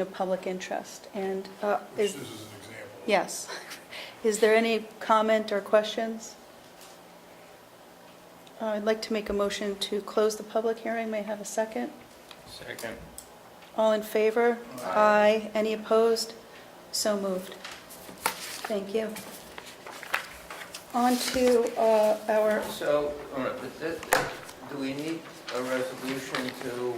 of public interest, and uh, which is, this is an example. yes. Is there any comment or questions? Uh, I'd like to make a motion to close the public hearing. May I have a second? Second. All in favor? Aye. Any opposed? So moved. Thank you. On to uh, our, So, all right, but this- do we need a resolution to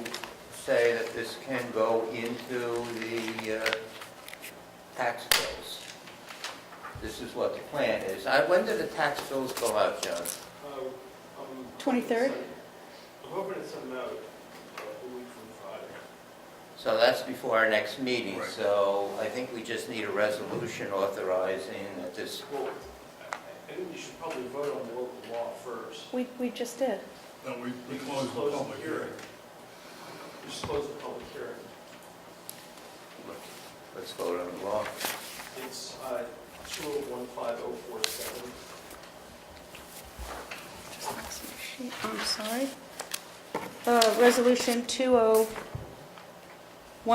say that this can go into the uh, tax bills? This is what the plan is. I- When do the tax bills go out, John? Uh, um, 23rd? I'm hoping it's something out uh, a week from Friday. So that's before our next meeting, Right. so I think we just need a resolution authorizing that this, Well, I- I think we should probably vote on the local law first. we we just did. No, we, we We closed the public hearing. We just closed the public hearing. let's vote on the law. It's uh, 2015047. I'm sorry. Uh, Resolution 2015047,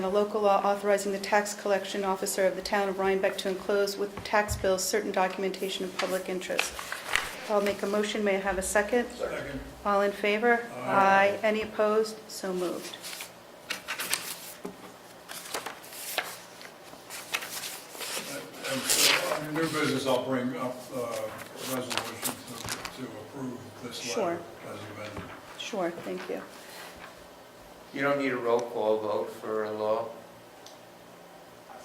a local law authorizing the tax collection officer of the town of Rhinebeck to enclose with tax bills certain documentation of public interest. I'll make a motion. May I have a second? Second, All in favor? Aye. Any opposed? So moved. and so on your new business, I'll bring up uh, a resolution to, to approve this Sure. letter as amended. Sure, thank you. You don't need a roll call vote for a law?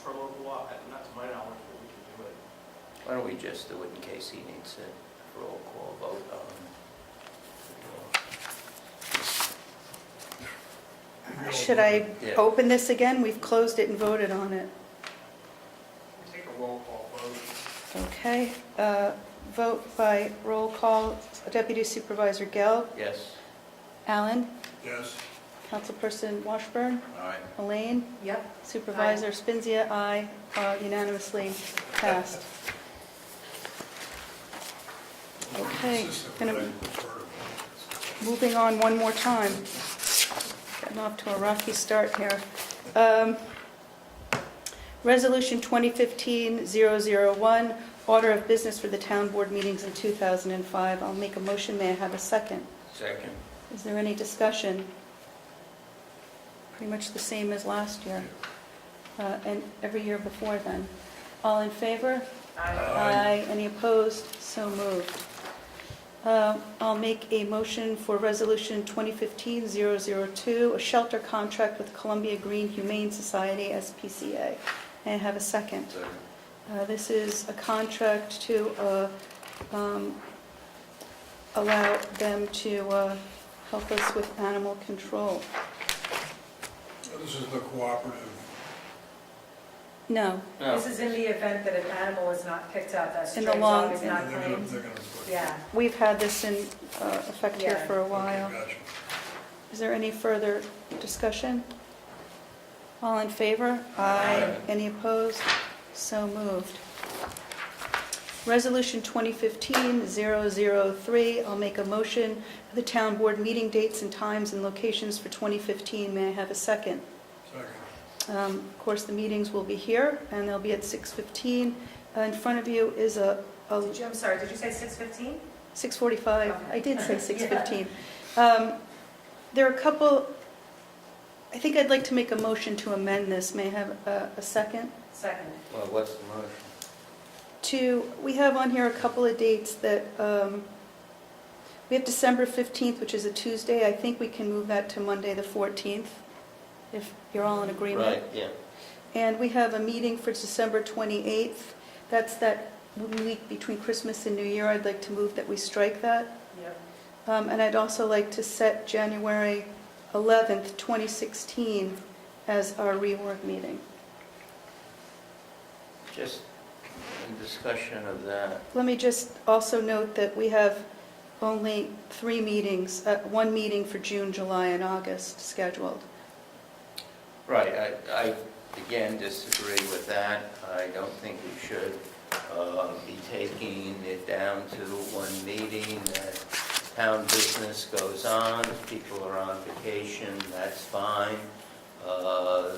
For local law, uh, not to my knowledge, but we can do it. Why don't we just do it in case he needs a roll call vote um, on? Should I Yeah. Oh. open this again? We've closed it and voted on it. Take a roll call vote. Okay, uh, vote by roll call. Deputy Supervisor Gell, Yes? Allen, Yes, Councilperson Washburn, Aye. Elaine, Yep. Supervisor Spinzia, aye, Uh, unanimously passed. Okay, consistent gonna- with what I prefer to. Moving on one more time. Getting off to a rocky start here. Um, Resolution 2015-001, order of business for the town board meetings in 2005. I'll make a motion, may I have a second? Second. Is there any discussion? Pretty much the same as last year, uh, and every year before then. All in favor? Aye. Any opposed? So moved. Uh, I'll make a motion for Resolution 2015-002, a shelter contract with Columbia Green Humane Society, SPCA. May I have a second? Uh, This is a contract to uh, um, allow them to uh, help us with animal control. This is the cooperative, No, This is in the event that an animal is not picked up, that In stray the long- dog is they're not gonna, claimed. they're gonna put. Yeah, we've had this in uh, effect here Yeah. for a Okay, while. Gotcha. Is there any further discussion? All in favor? Aye. Any opposed? So moved. Resolution 2015-003, I'll make a motion for the town board meeting dates and times and locations for 2015. May I have a second? Second, Um, Of course, the meetings will be here, and they'll be at 6:15. Uh, In front of you is a a Did you- I'm sorry, did you say 6:15? 6:45, I did say Okay. 6:15. Um, There are a couple, I think I'd like to make a motion to amend this, may I have a a second? Second. Well, what's the motion? To, we have on here a couple of dates that, um, we have December 15th, which is a Tuesday, I think we can move that to Monday, the 14th, if you're all in agreement. Right, yeah. And we have a meeting for December 28th. That's that week between Christmas and New Year. I'd like to move that we strike that. Yep. Um, And I'd also like to set January 11th, 2016 as our rework meeting. Just in discussion of that. Let me just also note that we have only three meetings, uh, one meeting for June, July, and August scheduled. Right, I, I again disagree with that. I don't think we should uh, be taking it down to one meeting. that Town business goes on, people are on vacation, that's fine. uh,